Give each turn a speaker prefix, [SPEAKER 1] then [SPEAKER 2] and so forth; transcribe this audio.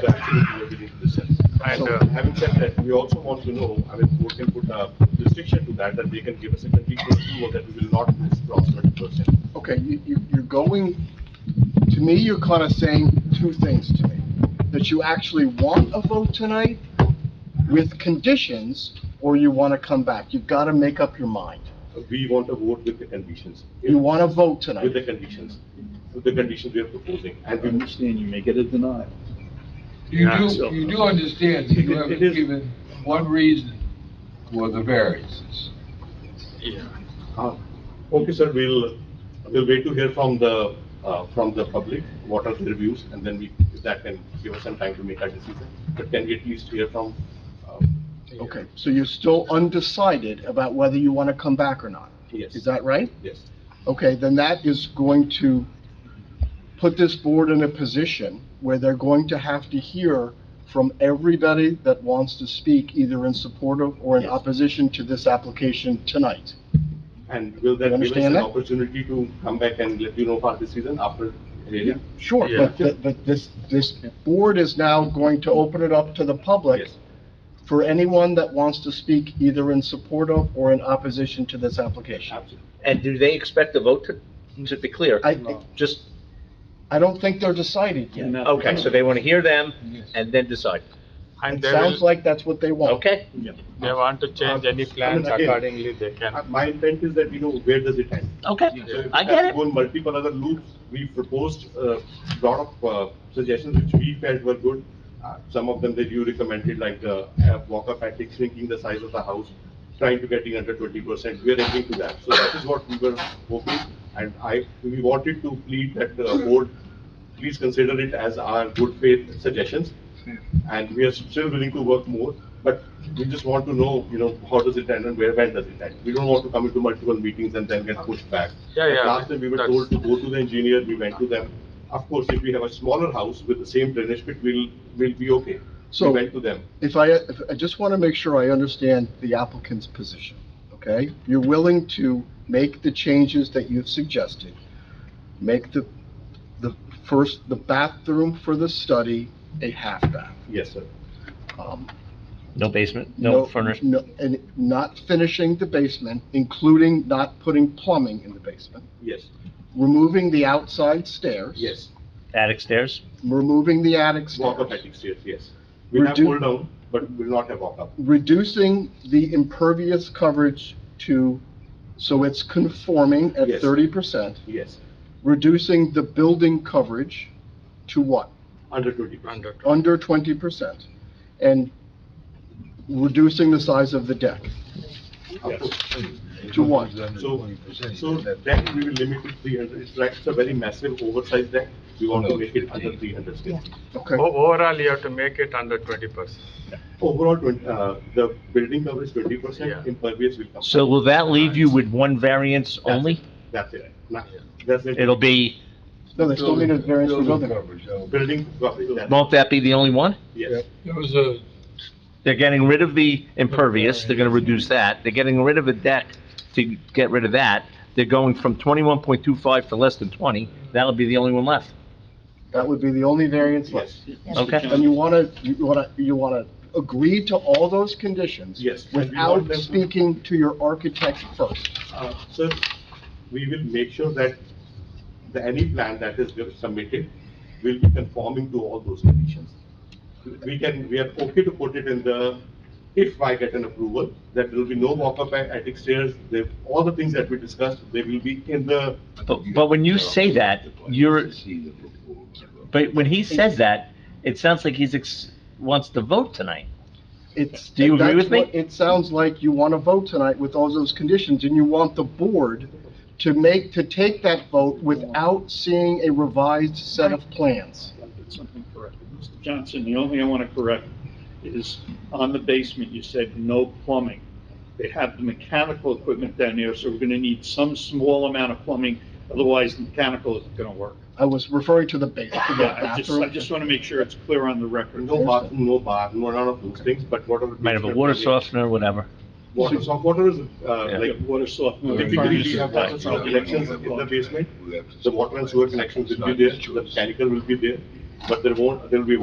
[SPEAKER 1] So absolutely everything in the sense.
[SPEAKER 2] And,
[SPEAKER 1] So
[SPEAKER 2] uh,
[SPEAKER 1] having said that, we also want to know, I mean, board can put a restriction to that, that they can give us a conditional approval that we will not cross twenty percent.
[SPEAKER 3] Okay, you, you, you're going, to me, you're kind of saying two things to me. That you actually want a vote tonight with conditions, or you want to come back. You've got to make up your mind.
[SPEAKER 1] We want a vote with the conditions.
[SPEAKER 3] You want to vote
[SPEAKER 1] With
[SPEAKER 3] tonight.
[SPEAKER 1] the conditions, with the conditions we are proposing.
[SPEAKER 4] I
[SPEAKER 1] And we
[SPEAKER 4] understand you may get a denial.
[SPEAKER 5] You
[SPEAKER 2] Yeah,
[SPEAKER 1] so-
[SPEAKER 5] do, you do understand that you
[SPEAKER 1] It- it
[SPEAKER 5] haven't
[SPEAKER 1] is-
[SPEAKER 5] given one reason for the variances.
[SPEAKER 2] Yeah.
[SPEAKER 1] Okay, sir, we'll, we'll wait to hear from the, uh, from the public, what are their views, and then we, if that can give us some time to make our decision. But can we at least hear from, uh,
[SPEAKER 3] Okay, so you're still undecided about whether you want to come back or not.
[SPEAKER 1] yes,
[SPEAKER 3] Is that right?
[SPEAKER 1] yes.
[SPEAKER 3] Okay, then that is going to put this board in a position where they're going to have to hear from everybody that wants to speak, either in support of or in
[SPEAKER 1] Yes.
[SPEAKER 3] opposition to this application tonight.
[SPEAKER 1] And will
[SPEAKER 3] You
[SPEAKER 1] that give us
[SPEAKER 3] understand
[SPEAKER 1] an
[SPEAKER 3] that?
[SPEAKER 1] opportunity to come back and let you know for this season after
[SPEAKER 3] Yeah,
[SPEAKER 1] hearing?
[SPEAKER 3] Sure,
[SPEAKER 2] Yeah.
[SPEAKER 3] but, th- but this, this board is now going to open it up to the public
[SPEAKER 1] Yes.
[SPEAKER 3] for anyone that wants to speak either in support of or in opposition to this application.
[SPEAKER 1] Absolutely.
[SPEAKER 6] And do they expect a vote to, to be clear?
[SPEAKER 3] I,
[SPEAKER 6] Just,
[SPEAKER 3] I don't think they're decided yet.
[SPEAKER 6] okay, so they want to hear them
[SPEAKER 5] Yes.
[SPEAKER 6] and then decide.
[SPEAKER 2] And
[SPEAKER 3] It
[SPEAKER 2] they
[SPEAKER 3] sounds Uh,
[SPEAKER 2] will,
[SPEAKER 3] like that's what they want.
[SPEAKER 6] Okay?
[SPEAKER 2] they want to change any plans
[SPEAKER 1] again-
[SPEAKER 2] accordingly, they
[SPEAKER 1] Uh,
[SPEAKER 2] can.
[SPEAKER 1] My intent is that, you know, where does it end?
[SPEAKER 6] Okay.
[SPEAKER 1] So if
[SPEAKER 6] Oh, I
[SPEAKER 1] we
[SPEAKER 6] get
[SPEAKER 1] have
[SPEAKER 6] it.
[SPEAKER 1] to Go in multiple other loops, we proposed a lot of uh, suggestions which we felt were good. Uh, Some of them that you recommended, like the uh, Walker Patrick shrinking the size of the house, trying to getting under twenty percent, we are agreeing to that. So that is what we were hoping, and I, we wanted to plead that the board, please consider it as our good faith suggestions. And we are still willing to work more, but we just want to know, you know, how does it end and where, when does it end? We don't want to come into multiple meetings and then get pushed back.
[SPEAKER 2] Yeah,
[SPEAKER 1] Like
[SPEAKER 2] yeah,
[SPEAKER 1] Last time we were
[SPEAKER 2] that's-
[SPEAKER 1] told to go to the engineer, we went to them. Of course, if we have a smaller house with the same drainage pit, we'll, we'll be okay. We
[SPEAKER 3] So-
[SPEAKER 1] went to them.
[SPEAKER 3] If I, if- I just want to make sure I understand the applicant's position, okay? You're willing to make the changes that you've suggested, make the, the first, the bathroom for the study a half bath.
[SPEAKER 1] Yes, sir.
[SPEAKER 3] um,
[SPEAKER 6] No basement, no furnace.
[SPEAKER 3] no- And not finishing the basement, including not putting plumbing in the basement,
[SPEAKER 1] Yes,
[SPEAKER 3] removing the outside stairs.
[SPEAKER 1] yes.
[SPEAKER 6] attic stairs?
[SPEAKER 3] Removing the attic
[SPEAKER 1] Walk up
[SPEAKER 3] stairs.
[SPEAKER 1] attic stairs, yes. We have
[SPEAKER 3] Redu-
[SPEAKER 1] pulled down, but will not have walk up.
[SPEAKER 3] Reducing the impervious coverage to, so it's conforming at
[SPEAKER 1] Yes.
[SPEAKER 3] thirty percent.
[SPEAKER 1] Yes,
[SPEAKER 3] reducing the building coverage to what?
[SPEAKER 1] under twenty
[SPEAKER 3] Uh,
[SPEAKER 1] percent.
[SPEAKER 2] Under,
[SPEAKER 3] Under twenty percent, and reducing the size of the deck to what?
[SPEAKER 1] So, so that we will limit to three hundred. It's like it's a very massive oversized deck. We want to make it under three hundred square.
[SPEAKER 3] Okay,
[SPEAKER 2] O- Overall, you have to make it under twenty percent.
[SPEAKER 1] Overall, twen- uh, the building coverage twenty percent,
[SPEAKER 2] Yeah.
[SPEAKER 1] impervious will come.
[SPEAKER 6] So will that leave you with one variance
[SPEAKER 1] That's it.
[SPEAKER 6] only?
[SPEAKER 1] That's it. Nah, That's it.
[SPEAKER 6] It'll be,
[SPEAKER 3] no, they still need a variance for building.
[SPEAKER 1] Building coverage, that's it.
[SPEAKER 6] won't that be the only one?
[SPEAKER 1] yes.
[SPEAKER 5] There was a,
[SPEAKER 6] They're getting rid of the impervious, they're gonna reduce that, they're getting rid of a deck to get rid of that, they're going from twenty-one point two five to less than twenty, that'll be the only one left,
[SPEAKER 3] That would be the only variance left.
[SPEAKER 1] Yes,
[SPEAKER 6] okay?
[SPEAKER 3] And you wanna, you wanna, you wanna agree to all those conditions?
[SPEAKER 1] Yes, and we want
[SPEAKER 3] Without
[SPEAKER 1] them to-
[SPEAKER 3] speaking to your architect first.
[SPEAKER 1] Uh, sir, we will make sure that the, any plan that is submitted will be conforming to all those conditions. We can, we are okay to put it in the, if I get an approval, that there will be no walk-up at attic stairs, there, all the things that we discussed, they will be in the,
[SPEAKER 6] But, but when you say that, you're, but when he says that, it sounds like he's, ex- wants to vote tonight.
[SPEAKER 3] It's.
[SPEAKER 6] Do you agree
[SPEAKER 3] that's
[SPEAKER 6] with me?
[SPEAKER 3] what- It sounds like you wanna vote tonight with all those conditions, and you want the board to make, to take that vote without seeing a revised set of plans.
[SPEAKER 4] Something corrected. Mr. Johnson, the only thing I want to correct is on the basement, you said no plumbing. They have the mechanical equipment down there, so we're going to need some small amount of plumbing, otherwise the mechanical isn't going to work.
[SPEAKER 3] I was referring to the base, to the
[SPEAKER 4] Yeah, I just, I
[SPEAKER 3] bathroom.
[SPEAKER 4] just want to make sure it's clear on the record.
[SPEAKER 1] no bathroom, no bath, no, none of those things, but whatever.
[SPEAKER 6] Might have a water softener, whatever.
[SPEAKER 1] Water soft, water is, uh,
[SPEAKER 6] Yeah.
[SPEAKER 1] like,
[SPEAKER 4] Like water softener.
[SPEAKER 1] Typically, we have water source connections in the basement, the water and sewer connections will be there, the mechanical will be there, but there won't, there will be